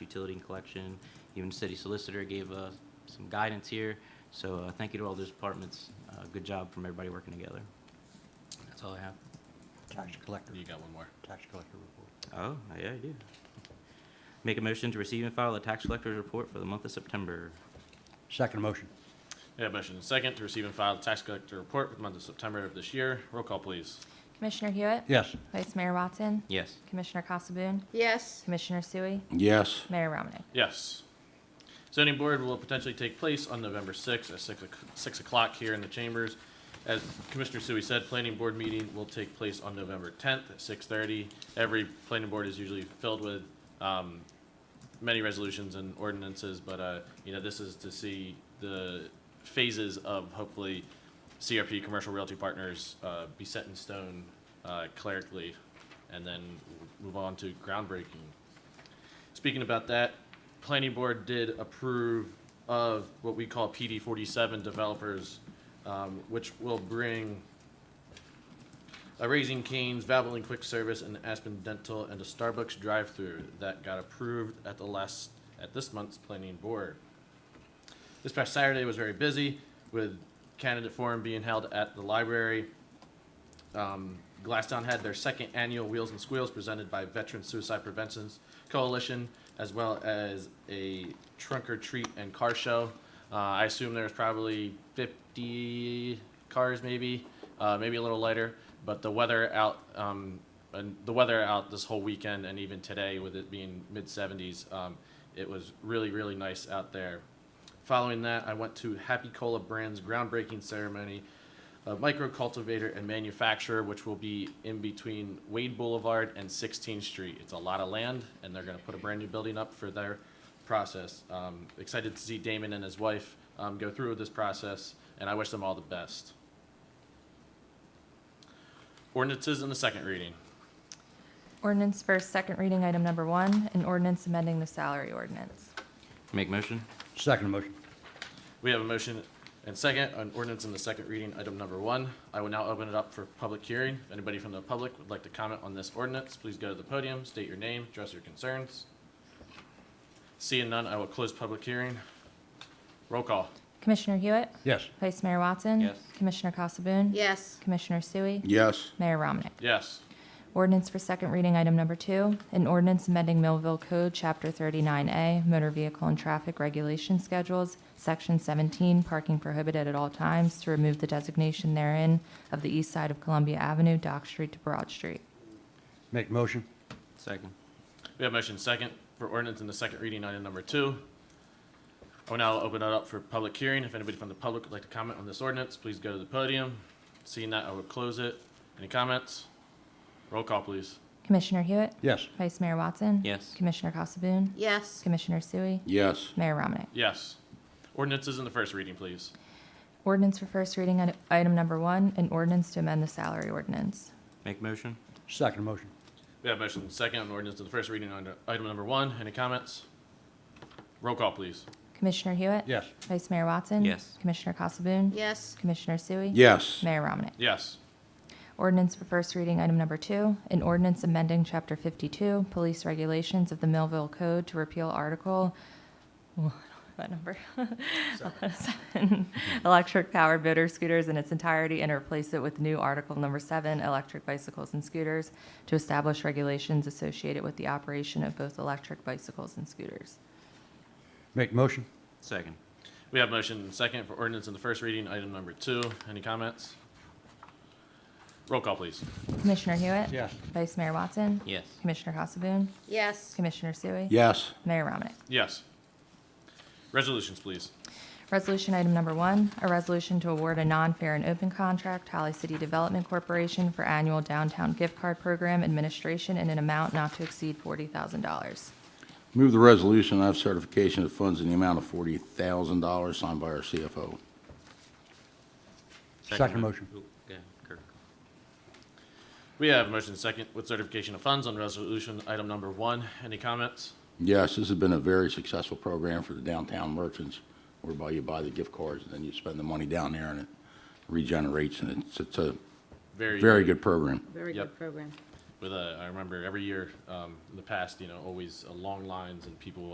utility and collection. Even the city solicitor gave uh, some guidance here. So uh, thank you to all those departments. Uh, Good job from everybody working together. That's all I have. Tax collector, You got one more. tax collector report. Oh, yeah, I do. Make a motion to receive and file the tax collector's report for the month of September. Second motion. We have motion and second to receive and file the tax collector report for the month of September of this year. Roll call, please. Commissioner Hewitt? Yes. Vice Mayor Watson? Yes. Commissioner Casabun? Yes. Commissioner Sui? Yes. Mayor Romanek? Yes. Zoning board will potentially take place on November sixth at six, o'c- six o'clock here in the chambers. As Commissioner Sui said, planning board meeting will take place on November tenth at six thirty. Every planning board is usually filled with, um, many resolutions and ordinances, but, uh, you know, this is to see the phases of hopefully CRP, Commercial Realty Partners, uh, be set in stone, uh, clerically, and then w- move on to groundbreaking. Speaking about that, planning board did approve of what we call PD forty-seven developers, um, which will bring a Raising Cane's, Valvoline Quick Service, and Aspen Dental, and a Starbucks drive-through that got approved at the last, at this month's planning board. This past Saturday was very busy with candidate forum being held at the library. Um, Glasstown had their second annual Wheels and Squeals presented by Veteran Suicide Prevention Coalition, as well as a trunk or treat and car show. Uh, I assume there's probably 50 cars, maybe, uh, maybe a little lighter. But the weather out, um, and the weather out this whole weekend and even today, with it being mid 70s, um, it was really, really nice out there. Following that, I went to Happy Cola Brand's groundbreaking ceremony a micro cultivator and manufacturer, which will be in between Wade Boulevard and 16th Street. It's a lot of land, and they're going to put a brand new building up for their process. Um, excited to see Damon and his wife um, go through with this process, and I wish them all the best. Ordinances in the second reading. Ordinance for second reading, item number one, an ordinance amending the salary ordinance. Make motion? Second motion. We have a motion and second on ordinance in the second reading, item number one. I will now open it up for public hearing. If anybody from the public would like to comment on this ordinance, please go to the podium, state your name, address your concerns. Seeing none, I will close public hearing. Roll call. Commissioner Hewitt? Yes. Vice Mayor Watson? Yes. Commissioner Casabun? Yes. Commissioner Sui? Yes. Mayor Romanek? Yes. Ordinance for second reading, item number two, an ordinance amending Millville Code, Chapter 39A, Motor Vehicle and Traffic Regulation Schedules, Section 17, Parking Prohibited at All Times, to remove the designation therein of the east side of Columbia Avenue, Dock Street to Broad Street. Make motion. Second. We have motion second for ordinance in the second reading, item number two. I will now open it up for public hearing. If anybody from the public would like to comment on this ordinance, please go to the podium. Seeing that, I will close it. Any comments? Roll call, please. Commissioner Hewitt? Yes. Vice Mayor Watson? Yes. Commissioner Casabun? Yes. Commissioner Sui? Yes. Mayor Romanek? Yes. Ordinances in the first reading, please. Ordinance for first reading, item- item number one, an ordinance to amend the salary ordinance. Make motion? Second motion. We have motion second on ordinance in the first reading on item number one. Any comments? Roll call, please. Commissioner Hewitt? Yes. Vice Mayor Watson? Yes. Commissioner Casabun? Yes. Commissioner Sui? Yes. Mayor Romanek? Yes. Ordinance for first reading, item number two, an ordinance amending Chapter 52, Police Regulations of the Millville Code to repeal Article, oh, I don't know that number, Seven. electric-powered motor scooters in its entirety and replace it with new Article Number 7, electric bicycles and scooters, to establish regulations associated with the operation of both electric bicycles and scooters. Make motion. Second. We have motion second for ordinance in the first reading, item number two. Any comments? Roll call, please. Commissioner Hewitt? Yes. Vice Mayor Watson? Yes. Commissioner Casabun? Yes. Commissioner Sui? Yes. Mayor Romanek? Yes. Resolutions, please. Resolution item number one, a resolution to award a non-fair and open contract to Holly City Development Corporation for annual downtown gift card program administration in an amount not to exceed $40,000. Move the resolution of certification of funds in the amount of forty thousand dollars signed by our CFO. Second motion. Ooh, go ahead, Kirk. We have motion second with certification of funds on resolution item number one. Any comments? Yes, this has been a very successful program for the downtown merchants, whereby you buy the gift cards and then you spend the money down there and it regenerates and it's, it's a very good program. Very Yep. good program. With a, I remember every year um, in the past, you know, always uh, long lines and people